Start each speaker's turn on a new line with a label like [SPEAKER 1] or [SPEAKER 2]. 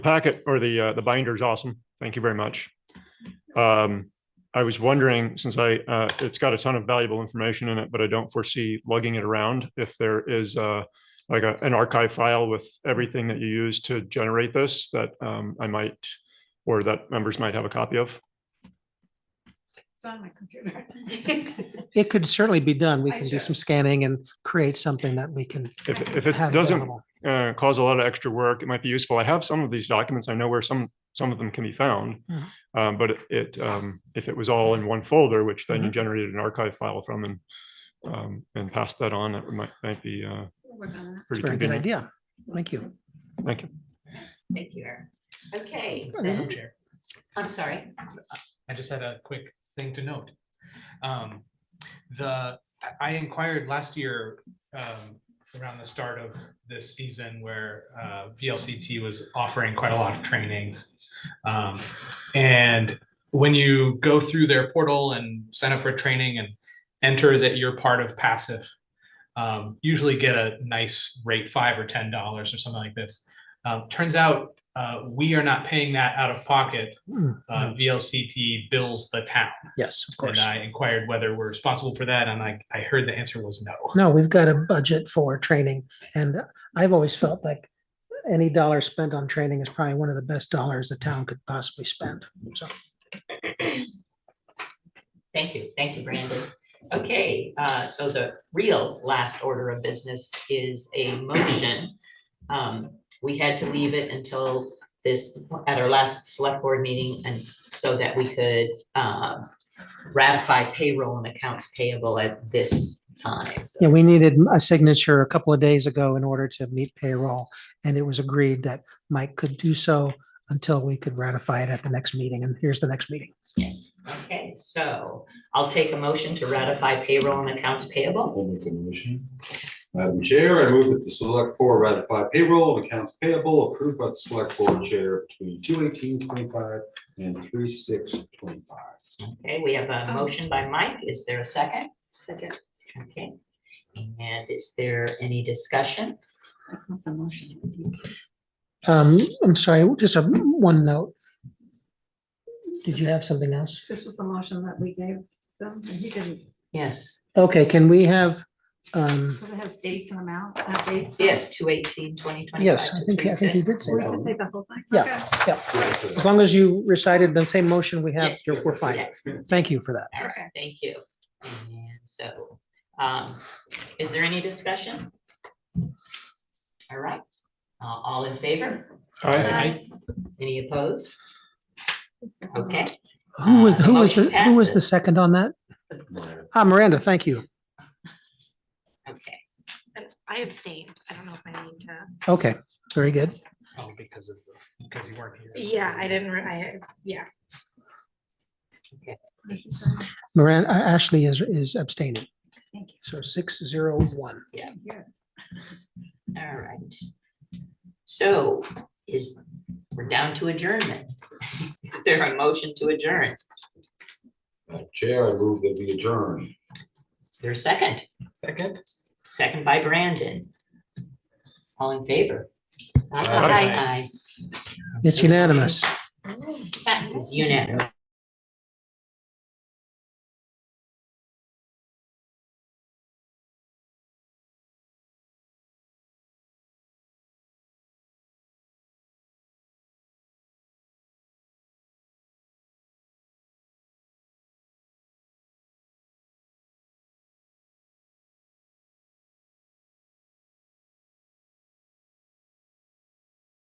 [SPEAKER 1] packet or the, uh, the binder is awesome. Thank you very much. Um, I was wondering, since I, uh, it's got a ton of valuable information in it, but I don't foresee lugging it around. If there is, uh, like a, an archive file with everything that you use to generate this that, um, I might, or that members might have a copy of.
[SPEAKER 2] It's on my computer.
[SPEAKER 3] It could certainly be done. We
[SPEAKER 2] I
[SPEAKER 3] can do
[SPEAKER 2] should.
[SPEAKER 3] some scanning and create something that we can.
[SPEAKER 1] If, if it
[SPEAKER 3] have
[SPEAKER 1] doesn't
[SPEAKER 3] available.
[SPEAKER 1] uh, cause a lot of extra work. It might be useful. I have some of these documents. I know where some, some of them can be found.
[SPEAKER 3] Mhm.
[SPEAKER 1] Um, But it- it, um, if it was all in one folder, which then you
[SPEAKER 3] Mm-hmm.
[SPEAKER 1] generated an archive file from and, um, and passed that on, that might, might be uh,
[SPEAKER 2] We'll work on that.
[SPEAKER 3] It's
[SPEAKER 1] pretty
[SPEAKER 3] a very good
[SPEAKER 1] convenient.
[SPEAKER 3] idea. Thank you.
[SPEAKER 1] Thank you.
[SPEAKER 2] Thank you, Eric. Okay,
[SPEAKER 4] Madam
[SPEAKER 2] then-
[SPEAKER 4] Chair,
[SPEAKER 2] I'm sorry.
[SPEAKER 4] I just had a quick thing to note. Um, The, I- I inquired last year um, around the start of this season where uh, VLCT was offering quite a lot of trainings. Um, And when you go through their portal and sign up for training and enter that you're part of passive, um, usually get a nice rate, five or ten dollars or something like this. Um, Turns out, uh, we are not paying that out of pocket
[SPEAKER 3] Mm,
[SPEAKER 4] uh, VLCT bills the town.
[SPEAKER 3] Yes, of
[SPEAKER 4] And
[SPEAKER 3] course.
[SPEAKER 4] I inquired whether we're responsible for that, and I, I heard the answer was no.
[SPEAKER 3] No, we've got a budget for training and I've always felt like any dollar spent on training is probably one of the best dollars the town could possibly spend. So
[SPEAKER 5] Thank you, thank you, Brandon. Okay, uh, so the real last order of business is a motion. Um, we had to leave it until this, at our last select board meeting, and so that we could, um, ratify payroll and accounts payable at this time.
[SPEAKER 3] yeah, we needed a signature a couple of days ago in order to meet payroll. And it was agreed that Mike could do so until we could ratify it at the next meeting. And here's the next meeting.
[SPEAKER 5] Okay, so I'll take a motion to ratify payroll and accounts payable.
[SPEAKER 6] I'll make the motion. Madam Chair, I move that the select board ratify payroll of accounts payable approved by the select board chair between two eighteen twenty-five and three six twenty-five.
[SPEAKER 5] Okay, we have a motion by Mike. Is there a second?
[SPEAKER 2] Second.
[SPEAKER 5] Okay. And is there any discussion?
[SPEAKER 2] That's not the motion.
[SPEAKER 3] Um, I'm sorry, just a one note. Did you have something else?
[SPEAKER 2] This was the motion that we gave them, and he didn't,
[SPEAKER 5] Yes.
[SPEAKER 3] Okay, can we have, um,
[SPEAKER 2] because it has dates and amount, not uh, dates.
[SPEAKER 5] Yes, two eighteen, twenty twenty.
[SPEAKER 3] yes, I think, I think you did say
[SPEAKER 2] So We have
[SPEAKER 3] that.
[SPEAKER 2] to say the whole thing.
[SPEAKER 3] Yeah.
[SPEAKER 2] Okay.
[SPEAKER 3] As long as you recited the same motion we have,
[SPEAKER 5] Yeah.
[SPEAKER 3] you're, we're fine. Thank you for that.
[SPEAKER 5] All right, thank you. And so, um, is there any discussion? All right, uh, all in favor?
[SPEAKER 1] I,
[SPEAKER 4] Aye.
[SPEAKER 5] Any opposed? Okay.
[SPEAKER 3] Who was, the who was,
[SPEAKER 5] Uh, the
[SPEAKER 3] the who was
[SPEAKER 5] motion
[SPEAKER 3] the
[SPEAKER 5] passes.
[SPEAKER 3] second on that? Ah, Miranda, thank you.
[SPEAKER 5] Okay,
[SPEAKER 7] I abstained. I don't know if I need to.
[SPEAKER 3] Okay, very good.
[SPEAKER 4] Oh, because of, the- because you weren't here.
[SPEAKER 7] Yeah, I didn't, re- I, yeah.
[SPEAKER 3] Miranda, Ashley is, is abstaining.
[SPEAKER 2] Thank you.
[SPEAKER 3] So six zero one.
[SPEAKER 2] Yeah.
[SPEAKER 5] all right. So is, we're down to adjournment. Is there a motion to adjourn?
[SPEAKER 6] Madam Chair, I move that we adjourn.
[SPEAKER 5] Is there a second?
[SPEAKER 4] Second?
[SPEAKER 5] Second by Brandon. All in favor?
[SPEAKER 6] Aye.
[SPEAKER 5] Aye.
[SPEAKER 3] It's unanimous.
[SPEAKER 5] Passes unanimously.